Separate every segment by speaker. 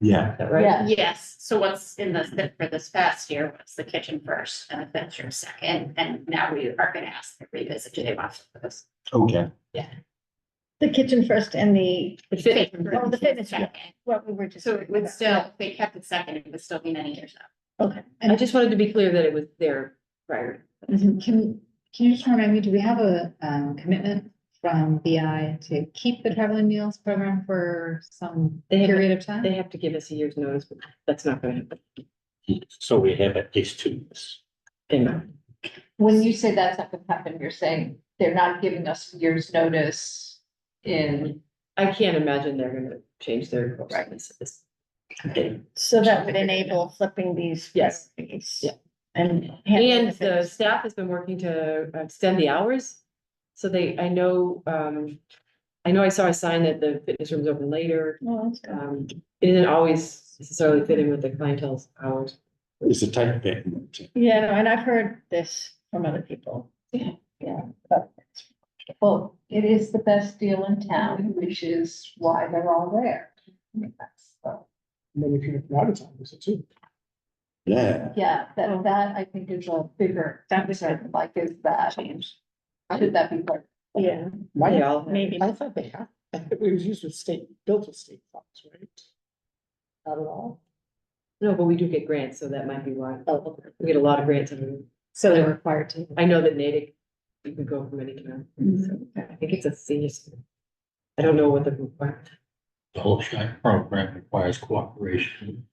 Speaker 1: Yeah,
Speaker 2: Is that right?
Speaker 3: Yeah.
Speaker 4: Yes, so what's in this, that for this past year was the kitchen first and the bedroom second, and now we are gonna ask to revisit, do they want to put this?
Speaker 1: okay.
Speaker 3: The kitchen first and the,
Speaker 4: The
Speaker 3: fitness room. Oh, the fitness room.
Speaker 4: second.
Speaker 3: what we were just.
Speaker 4: So it would still, if they kept it second, it would still be many years out.
Speaker 3: Okay.
Speaker 2: I just wanted to be clear that it was there prior.
Speaker 5: Mhm. Can, can you just remind me, do we have a, um, commitment from BI to keep the traveling meals program for some
Speaker 2: They have-
Speaker 5: period of time?
Speaker 2: They have to give us a year's notice, but that's not gonna happen.
Speaker 6: So we have at least two years.
Speaker 2: They're not.
Speaker 7: When you say that's not gonna happen, you're saying they're not giving us years' notice in,
Speaker 2: I can't imagine they're gonna change their practices.
Speaker 3: So that would enable flipping these.
Speaker 2: Yes.
Speaker 3: priorities
Speaker 2: Yeah.
Speaker 3: And. handling
Speaker 2: And the
Speaker 3: fitness.
Speaker 2: staff has been working to extend the hours. So they, I know, um, I know I saw a sign that the fitness room's open later.
Speaker 3: Oh, that's good.
Speaker 2: Um, it isn't always necessarily fit in with the clientele's hours.
Speaker 6: It's a tight bit.
Speaker 3: Yeah, no, and I've heard this from other people.
Speaker 7: well, it is the best deal in town, which is why they're all there. That's the-
Speaker 8: Many people out of town, is it too?
Speaker 6: Yeah,
Speaker 7: Yeah, that, that I think is a bigger, that was like, is that change? Should that be part?
Speaker 3: Yeah,
Speaker 2: They
Speaker 8: My,
Speaker 2: all,
Speaker 3: maybe.
Speaker 8: uh, I thought they had, I thought it was used with state, built with state funds, right? Not at all. Oh,
Speaker 2: no, but we do get grants, so that might be why. We get a lot of grants. every year.
Speaker 5: So they're required to.
Speaker 2: I know that Natick, you can go from any town. So
Speaker 8: Mm-hmm.
Speaker 2: I think it's a senior. center. I don't know what the requirement.
Speaker 6: the whole shot program requires cooperation.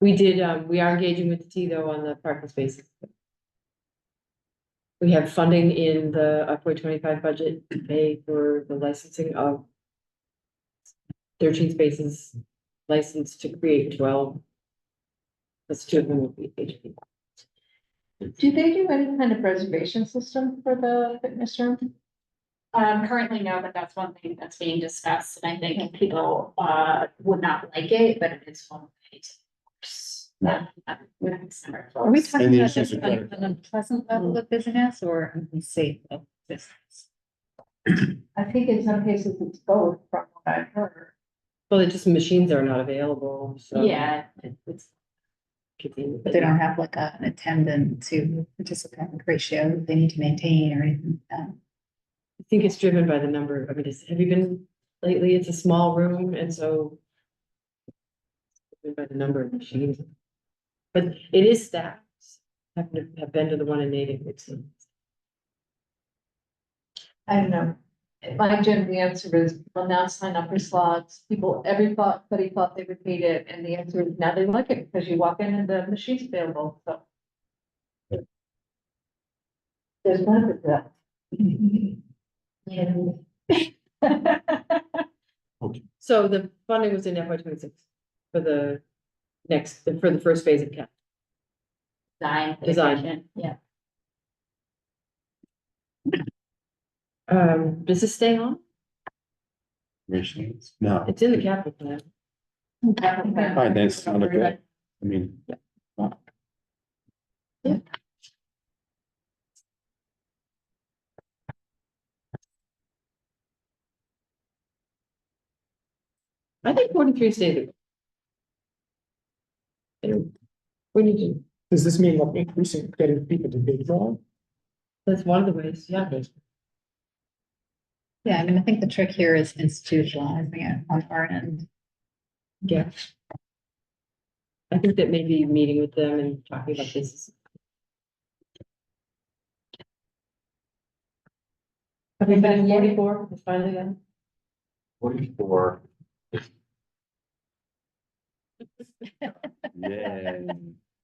Speaker 2: We did, um, we are engaging with the T though on the parking spaces. We have funding in the upward twenty-five budget to pay for the licensing of thirteen spaces licensed to create twelve. That's two of them will be HP.
Speaker 7: Do they do any kind of reservation system for the fitness room?
Speaker 4: Um, currently, no, but that's one thing that's being discussed, and I think people, uh, would not like it, but it is one way to.
Speaker 6: Right.
Speaker 5: Are we
Speaker 6: And
Speaker 5: talking
Speaker 6: the
Speaker 5: about
Speaker 6: issues
Speaker 5: this
Speaker 6: with
Speaker 5: on
Speaker 6: that-
Speaker 5: an unpleasant level of busyness or a safe level of business?
Speaker 7: I think in some cases it's both, from what I've heard.
Speaker 2: Well, it's just machines are not available, so.
Speaker 4: Yeah,
Speaker 2: It's.
Speaker 5: But they don't have like a- an attendant to participant ratio that they need to maintain or anything like that.
Speaker 2: I think it's driven by the number, I mean, it's, have you been lately, it's a small room and so. driven By the number of machines. But it is staffed, I've, have been to the one in Natick, it's,
Speaker 7: I don't know. In My gym, the answer is, well, now sign up for slots. People, everybody thought they would need it, and the answer is now they like it, because you walk in and the machine's available, so. There's benefit to that.
Speaker 2: so the funding was in FY twenty-six. For the next, for the first phase of cap,
Speaker 4: design.
Speaker 2: Design.
Speaker 4: Yeah.
Speaker 2: um, does this stay on?
Speaker 6: Machines, no,
Speaker 2: It's in the capital plan,
Speaker 6: fine, that's not a good, I mean.
Speaker 2: I think forty-three stays. Anyway, We need to,
Speaker 8: Does this mean like increasing, getting people to bid more?
Speaker 2: that's one of the ways, yeah.
Speaker 5: Yeah, I mean, I think the trick here is institutionalizing it on our end.
Speaker 2: Yeah. I think that maybe meeting with them and talking about this. is- Everybody forty-four, is finally done.
Speaker 6: Forty-four. Yeah.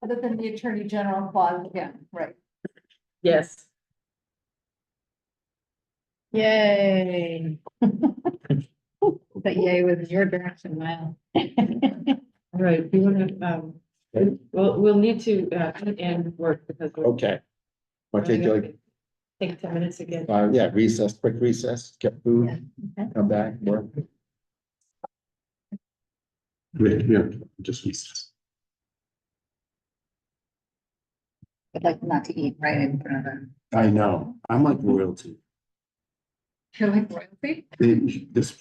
Speaker 7: Other than the attorney general clause again, right?
Speaker 2: Yes.
Speaker 5: Yay. But yay with your direction, wow.
Speaker 2: All right, we want to, um, we- well, we'll need to, uh, end work because. we're-
Speaker 6: Okay. I'll take like,
Speaker 2: Take ten minutes again.
Speaker 6: uh, yeah, recess, quick recess, get food, come back, work. Yeah, yeah, just recess.
Speaker 5: I'd like not to eat right in front of them.
Speaker 6: I know, I'm like royalty,
Speaker 7: You're like royalty?
Speaker 6: They- this